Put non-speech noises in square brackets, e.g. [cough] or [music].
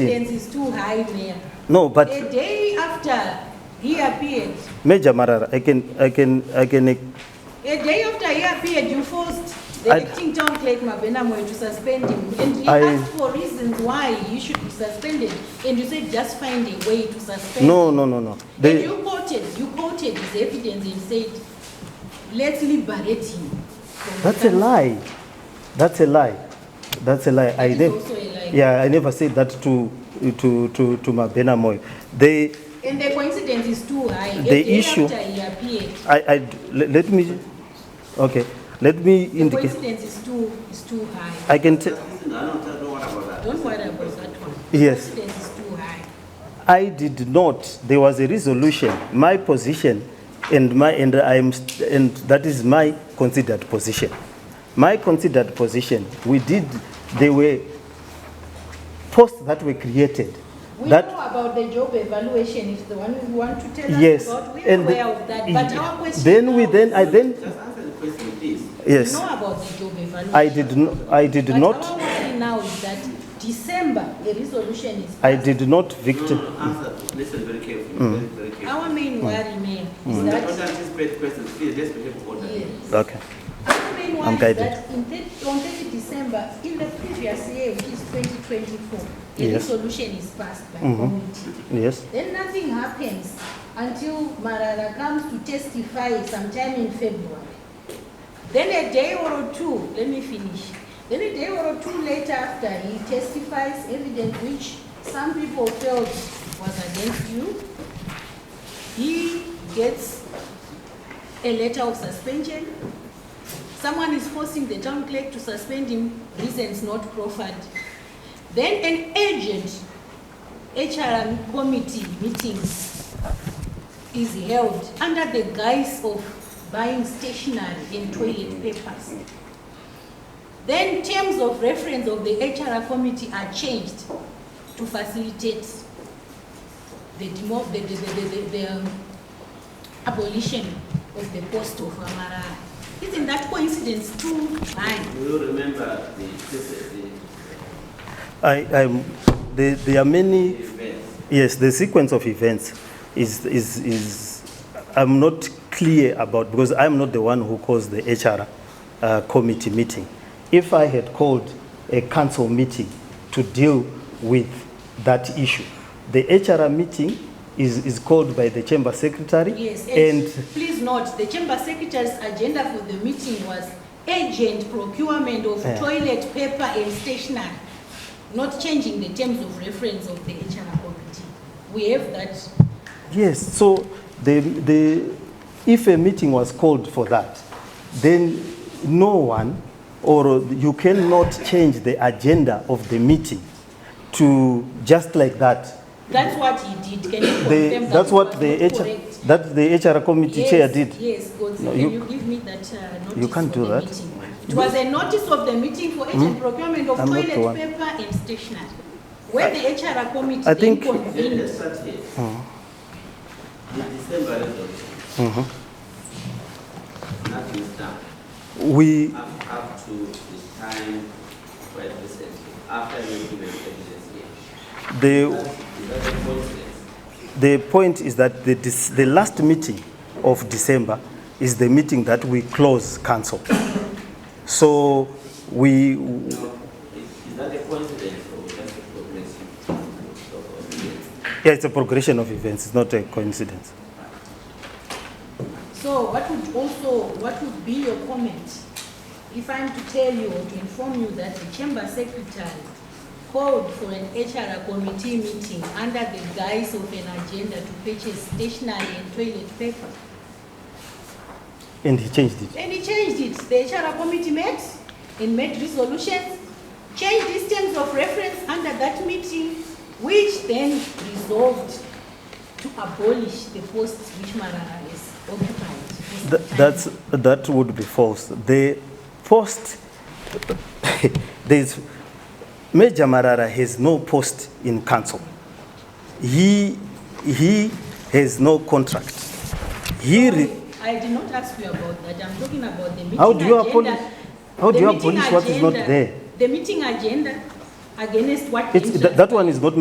Evidence is too high, Mayor. No, but The day after he appeared, Major Marara, I can, I can, I can, a day after he appeared, you forced the I- acting town clerk Mabenamwe to suspend him. And he I- asked for reasons why he should be suspended, and you said just find a way to suspend. no, no, no, no. And They, you quoted, you quoted his evidence and said, let's liberate him. from that's a cancer." lie. That's a lie. That's a lie. I That is never, also a lie. yeah, I never said that to, to, to, to Mabena Moyo. They, And the coincidence is too high. A The day issue- After he appeared, I, I, let let me, okay, let me the indicate. coincidence is too, is too high. I can tell, Don't worry about that one. Yes. Coincidence is too high. I did not, there was a resolution, my position, and my, and I'm, st- and that is my considered position. My considered position, we did, there were posts that were created. We know That, about the job evaluation, if the one you want to tell us yes. about, we are and aware of that, but our question. Then we, now then, is, I then, Just answer the question, please. yes, We know about the job evaluation. I did, n- I did But our not, worry now is that December, a resolution is. I did not No, victim. no, no, answer, listen very carefully, very, very carefully. Our Hmm. main worry, Mayor, is Don't that, anticipate questions, please, let's behave orderly. yes. Okay, Our main worry is guided. that in thirty, on thirty December, in the previous year, which is twenty twenty-four, a Yes. Mm-hmm. resolution is passed by committee. yes, Then nothing happens until Marara comes to testify sometime in February. Then a day or two, let me finish. Then a day or two later after he testifies evidence which some people felt was against you, he gets a letter of suspension. Someone is forcing the town clerk to suspend him, reasons not proffered. Then an agent HRM committee meetings is held under the guise of buying stationery and toilet papers. Then terms of reference of the HRM committee are changed to facilitate the demo, the, the, the, the, the, the um, abolition of the post of Amara. Isn't that coincidence too high? Do you remember the, the, I, I'm, there, there are the many events? Yes, the sequence of events is, is, is, I'm not clear about, because I'm not the one who caused the HR uh, committee meeting. If I had called a council meeting to deal with that issue, the HR meeting is, is called by the chamber secretary. Yes, and And please note, the chamber secretary's agenda for the meeting was urgent procurement of Yeah. toilet paper and stationery, not changing the terms of reference of the HR committee. We have that. Yes, so the, the, if a meeting was called for that, then no one, or you cannot change the agenda of the meeting to, just like that. That's what he did. Can The, you confirm that? that's what was the not HR, correct? that the HR committee Yes, chair did. Yes, Godzi, No, can you- you give me that uh, notice? can't for do the that. Mm-hmm. meeting? It was a notice of the meeting for urgent procurement of I'm not the toilet one. paper and stationery, where the HR committee I then think- Then convened. let's start here. The December resolution, Mm-hmm. nothing is done, We, up, up to the time quite recently, after the given evidence here. the, Is that a coincidence? the point is that the, dis- the last meeting of December is the meeting that we close council. So we, No, is, is that a coincidence or just a progression of events? Yeah, it's a progression of events, it's not a coincidence. So what would also, what would be your comment if I'm to tell you or to inform you that the chamber secretary called for an HR committee meeting under the guise of an agenda to purchase stationery and toilet paper? And he changed it. And he changed it. The HR committee met and made resolutions, changed these terms of reference under that meeting, which then resolved to abolish the posts which Marara is occupied. Th- That's, that would be false. The post, [laughs] there's, Major Marara has no post in council. He, he has no contract. He, re- I did not ask you about that, I'm talking about the meeting how do you agenda. abolish, how do The you meeting abolish what is not agenda- there? The meeting agenda against what? It's, interest? that that one is not